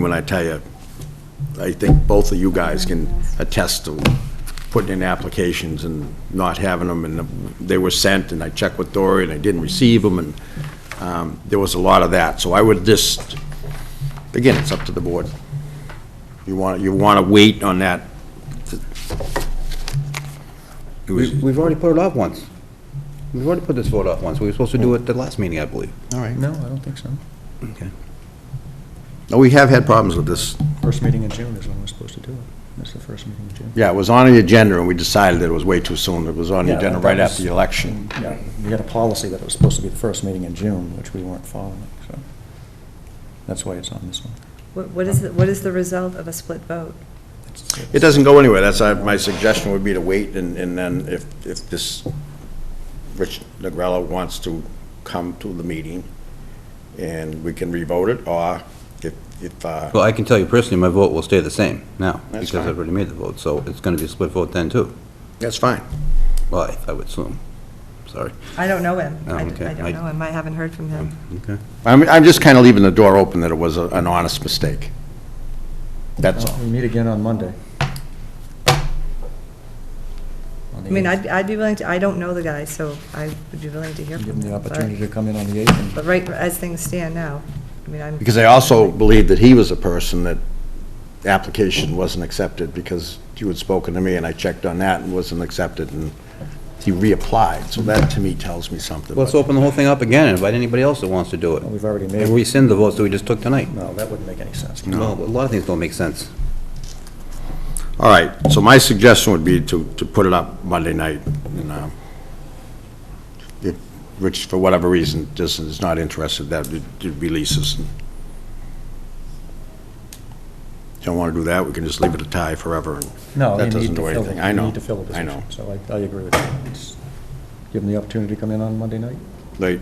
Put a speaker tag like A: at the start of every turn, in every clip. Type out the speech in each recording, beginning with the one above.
A: When I tell you, I think both of you guys can attest to putting in applications and not having them, and they were sent, and I checked with Dory, and I didn't receive them, and um, there was a lot of that. So I would just, again, it's up to the board. You want, you want to wait on that? It was-
B: We've already put it off once. We've already put this vote off once. We were supposed to do it the last meeting, I believe.
A: All right.
C: No, I don't think so.
B: Okay.
A: No, we have had problems with this.
C: First meeting in June is when we're supposed to do it. That's the first meeting in June.
A: Yeah, it was on the agenda, and we decided that it was way too soon. It was on the
C: Yeah,
A: agenda
C: that
A: right
C: was-
A: after the election.
C: Yeah, we had a policy that it was supposed to be the first meeting in June, which we weren't following, so that's why it's on this one.
D: What what is, the- what is the result of a split vote?
C: It's- it's-
A: It doesn't go anywhere, that's, uh, my suggestion would be to wait, and, and then if, if this, Rich Negrello wants to come to the meeting, and we can revote it, or if, if, uh,
B: Well, I can tell you personally, my vote will stay the same now,
A: That's
B: because I've
A: fine.
B: already made the vote, so it's gonna be a split vote then, too.
A: that's fine.
B: Well, I- I would assume. Sorry.
D: I don't know him.
B: Oh,
D: I
B: okay.
D: I
B: I- Oh.
D: don't know him. I haven't heard from him.
B: Okay.
A: I'm, I'm just kind of leaving the door open that it was a- an honest mistake. That's
C: Well,
A: all.
C: We meet again on Monday. On the
D: I mean,
C: eighth.
D: I'd, I'd be willing to, I don't know the guy, so I would be willing to hear
C: Give
D: from
C: them
D: him.
C: the
D: but-
C: opportunity to come in on the 8th and
D: But right, as things stand now, I mean, I'm.
A: Because I also believe that he was a person that application wasn't accepted, because you had spoken to me, and I checked on that, and wasn't accepted, and he reapplied, so that to me tells me something.
B: Let's open the whole thing up again and invite anybody else that wants to do it.
C: Well, we've already made-
B: And rescind the votes that we just took tonight.
C: No, that wouldn't make any sense.
B: Well, a lot of things don't make sense.
A: All right, so my suggestion would be to, to put it up Monday night, and, um, if Rich, for whatever reason, just is not interested, that would would release us. Don't want to do that, we can just leave it a tie forever, and
C: No,
A: that
C: you
A: doesn't
C: need to
A: do
C: fill
A: anything.
C: it.
A: I know,
C: You need to fill a
A: I
C: position.
A: know.
C: So I, I agree with you. It's- Give them the opportunity to come in on Monday night.
A: Like,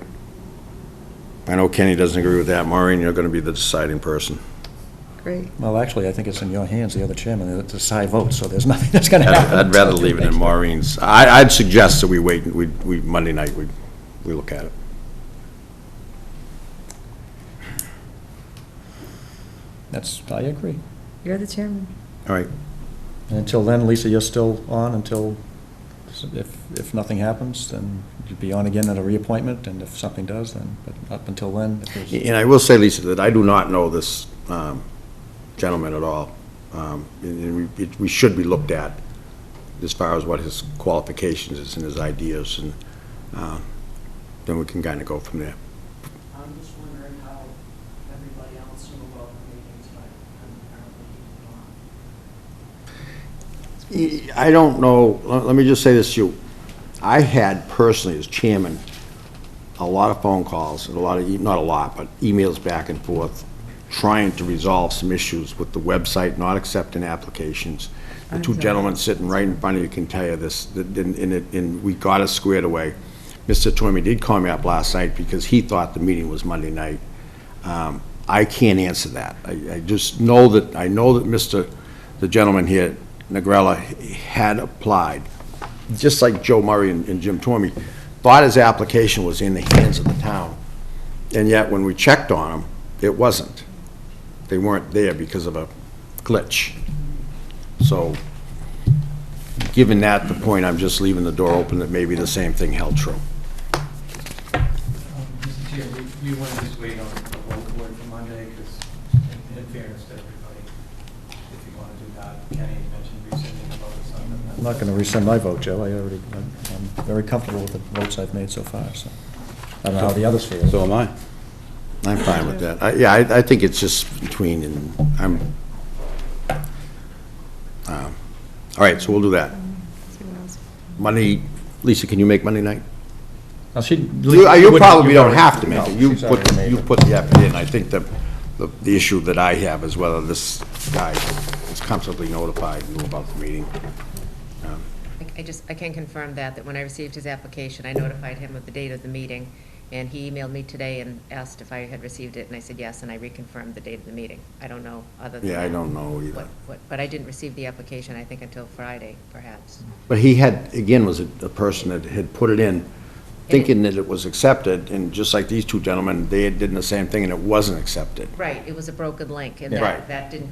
A: I know Kenny doesn't agree with that, Maureen, you're going to be the deciding person.
D: Great.
C: Well, actually, I think it's in your hands, the other chairman, it's a tie vote, so there's nothing that's going to happen.
A: I'd I'd rather leave it in Maureen's. I, I'd suggest that we wait, we, we, Monday night, we, we look at it.
C: That's, I agree.
D: You're the chairman.
A: All right,
C: And Until then, Lisa, you're still on until, if, if nothing happens, then you'd be on again at a reappointment, and if something does, then, but up until then, if there's,
A: And I will say, Lisa, that I do not know this um, gentleman at all. Um, And and we, it- we should be looked at as far as what his qualifications is and his ideas, and uh, then we can kind of go from there.
E: I'm just wondering how everybody else in the world meetings, but I'm apparently not.
A: I don't know, let let me just say this to you. I had personally, as chairman, a lot of phone calls, and a lot of, e- not a lot, but emails back and forth, trying to resolve some issues with the website not accepting applications. The two
D: Okay.
A: gentlemen sitting right in front of you can tell you this, that- and, and it- and we got it squared away. Mr. Twimmy did call me up last night because he thought the meeting was Monday night. Um, I can't answer that. I, I just know that, I know that Mr., the gentleman here, Negrella, had applied, just like Joe Murray and and Jim Torme, thought his application was in the hands of the town, and yet when we checked on him, it wasn't. They weren't there because of a glitch. So, given that, the point, I'm just leaving the door open that maybe the same thing held true.
F: Um, Mr. Chair, we- we want to just wait on the whole board for Monday, because in fairness to everybody, if you want to do that, Kenny mentioned rescinding about the sun. and that's-
C: I'm not going to rescind my vote, Joe, I already, I'm I'm very comfortable with the votes I've made so far, so. I don't know how the others feel.
B: So am I.
A: I'm fine with that. I- Yeah, I, I think it's just between, and I'm, um, all right, so we'll do that.
D: See what else.
A: Monday, Lisa, can you make Monday night?
C: Now, she-
A: You you
C: wouldn't-
A: probably
C: you
A: don't
C: already-
A: have to make
C: No,
A: it. You
C: she's already
A: put,
C: made
A: you
C: it.
A: put the effort in. I think the, the- the issue that I have is whether this guy is comfortably notified and knew about the meeting.
G: I- I just, I can confirm that, that when I received his application, I notified him of the date of the meeting, and he emailed me today and asked if I had received it, and I said yes, and I reconfirmed the date of the meeting. I don't know, other than
A: Yeah, I
G: that,
A: don't know either.
G: what- what- But I didn't receive the application, I think, until Friday, perhaps.
A: But he had, again, was a a person that had put it in thinking that it was accepted, and just like these two gentlemen, they had did the same thing and it wasn't accepted.
G: Right, it was a broken link, and
A: Yeah. Right.
G: that, that didn't